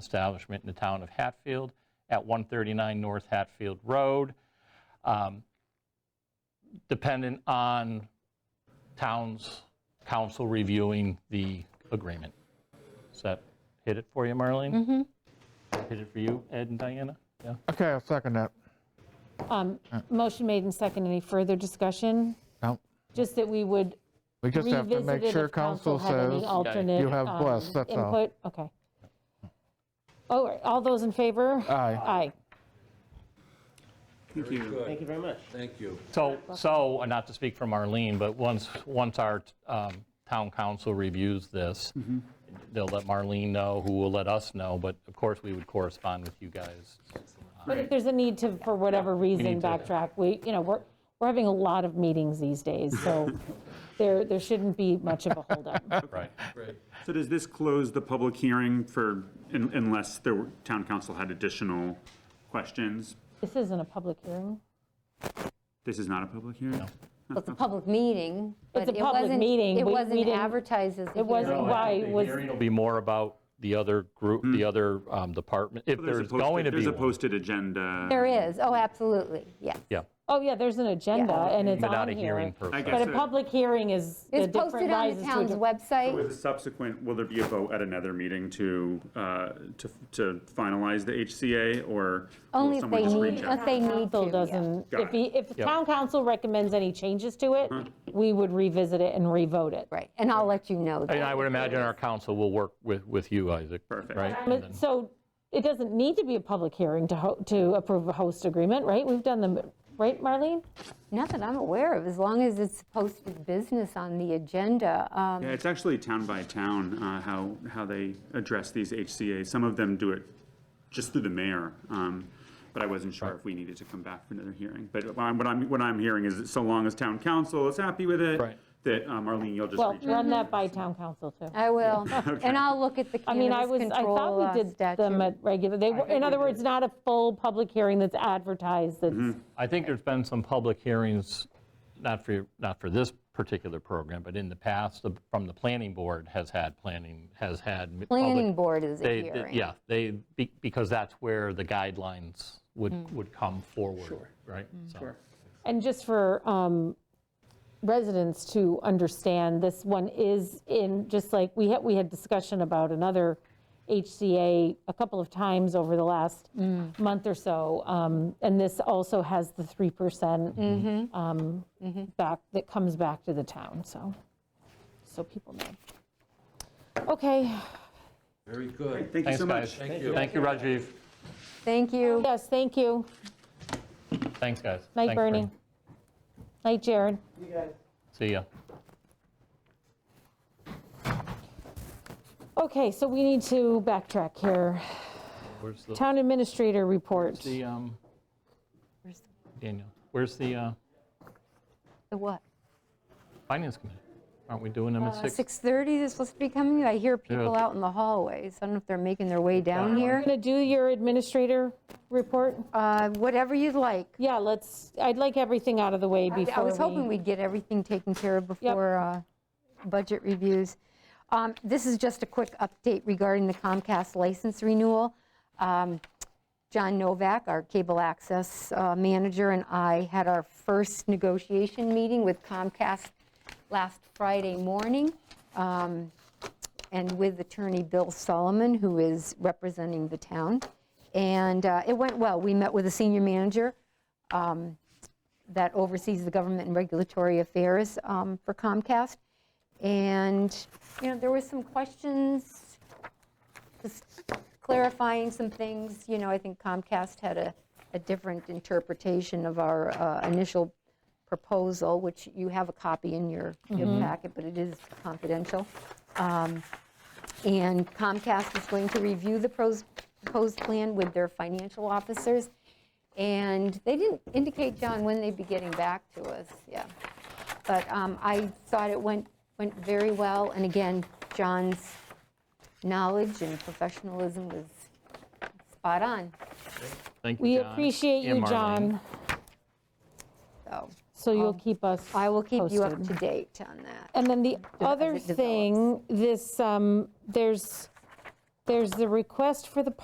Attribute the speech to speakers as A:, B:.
A: establishment in the town of Hatfield at 139 North Hatfield Road, um, dependent on town's council reviewing the agreement. Does that hit it for you, Marlene? Hit it for you, Ed and Diana? Yeah?
B: Okay, I'll second that.
C: Um,
B: Uh.
C: Motion made and second. Any further discussion?
B: No,
C: Just that we would
B: we just have
C: revisit
B: to make
C: it
B: sure
C: if council
B: council
C: had any
B: says,
C: alternate.
B: you have
C: um,
B: blessed, that's all.
C: Input, okay. All right, all those in favor?
B: Aye.
C: Aye.
D: Thank you.
E: Thank you very much.
D: Thank you.
A: So, so, and not to speak for Marlene, but once, once our um, town council reviews this, they'll let Marlene know, who will let us know, but of course, we would correspond with you guys.
C: But if there's a need to, for whatever reason,
A: need to-
C: backtrack, we, you know, we're, we're having a lot of meetings these days, so there, there shouldn't be much of a holdup.
A: Right.
F: So does this close the public hearing for, un- unless the town council had additional questions?
C: This isn't a public hearing.
F: This is not a public hearing?
G: It's a public meeting, but
C: It's a
G: it
C: public
G: wasn't,
C: meeting. We-
G: it
C: we
G: wasn't
C: didn't-
G: advertised as a
C: It wasn't-
A: Oh,
G: hearing.
C: Why was-
A: The hearing will be more about the other group, the other um, department, if
F: Hmm. There's a
A: there's going to
F: posted-
A: be
F: There's a
A: one.
F: posted agenda.
G: There is, oh, absolutely, yes.
A: Yeah,
C: Oh, yeah, there's an agenda, and it's
A: but
C: on
A: not a
C: here.
A: hearing
F: I
A: purpose.
F: guess
C: But a
F: it-
C: public hearing is a
G: It's
C: different,
G: posted on
C: rises
G: the
C: to a
G: town's
C: different.
G: website.
F: With a subsequent, will there be a vote at another meeting to, uh, to to finalize the HCA, or
G: Only
F: will
G: if
F: someone
G: they
F: just
G: need,
F: reach
G: if
F: out?
G: they need
C: Council
G: to, yeah.
C: doesn't,
F: Got
C: if
F: it.
C: he, if town council recommends any changes to it,
F: Mm-hmm.
C: we would revisit it and revote it.
G: Right, and I'll let you know.
A: And
G: that.
A: I would imagine our council will work with, with you, Isaac,
F: Perfect.
A: right? And
C: But,
A: then-
C: so it doesn't need to be a public hearing to, ho- to approve a host agreement, right? We've done them, right, Marlene?
G: Not that I'm aware of, as long as it's posted business on the agenda. um,
F: Yeah, it's actually town by town, uh, how, how they address these HCA. Some of them do it just through the mayor, um, but I wasn't sure if we needed to come back for another hearing. But what I'm- what I'm, what I'm hearing is that so long as town council is happy with it,
A: Right.
F: that uh, Marlene, you'll just
C: Well,
F: reach out.
C: run that by town council too.
G: I will, and I'll look at the
C: I mean, I
G: cannabis
C: was, I
G: control
C: thought
G: uh,
C: we did them
G: statute.
C: at regular, they were, in other words, not a full public hearing that's advertised, that's,
A: I think there's been some public hearings, not for, not for this particular program, but in the past, the- from the planning board has had planning, has had. m- public-
G: Planning board is a
A: They- they-
G: hearing.
A: Yeah, they, be- because that's where the guidelines would, would come forward, right? Sure.
C: And just for um, residents to understand, this one is in, just like, we had, we had discussion about another HCA a couple of times over the last month or so. um, And this also has the 3% um, back, that comes back to the town, so, so people know. Okay,
D: Very good.
F: Thank you
A: Thanks,
F: so much.
A: guys. Thank you, Rajiv.
G: Thank you.
C: yes, thank you.
A: Thanks, guys.
C: Night,
A: Thanks,
C: Bernie. Night, Jared.
A: See ya.
C: Okay, so we need to backtrack here.
A: Where's the,
C: Town administrator report.
A: the, um, Daniel, where's the uh,
G: The what?
A: finance committee? Aren't we doing them at
G: Uh,
A: six?
G: 6:30 they're supposed to be coming. I hear people
A: Yeah.
G: out in the hallways. I don't know if they're making their way down here.
C: Going to do your administrator report?
G: Uh, Whatever you'd like.
C: Yeah, let's, I'd like everything out of the way
G: I-
C: before
G: I was hoping
C: we-
G: we'd get everything taken care of before uh, budget reviews. Um, This is just a quick update regarding the Comcast license renewal. Um, John Novak, our cable access uh, manager, and I had our first negotiation meeting with Comcast last Friday morning, um, and with attorney Bill Solomon, who is representing the town. And uh, it went well. We met with a senior manager that oversees the government and regulatory affairs um, for Comcast. And, you know, there were some questions, just clarifying some things. You know, I think Comcast had a, a different interpretation of our uh, initial proposal, which you have a copy in your your packet, but it is confidential. Um, And Comcast is going to review the pros- proposed plan with their financial officers. And they didn't indicate, John, when they'd be getting back to us, yeah. But um, I thought it went, went very well, and again, John's knowledge and professionalism was spot on,
A: Thank you,
C: We
A: John
C: appreciate
A: and
C: you,
A: Marlene.
C: John,
G: so
C: so you'll keep us
G: Um, I will keep you up to
C: posted.
G: date on that.
C: And then the other
G: it develops.
C: thing, this, um, there's there's the request for the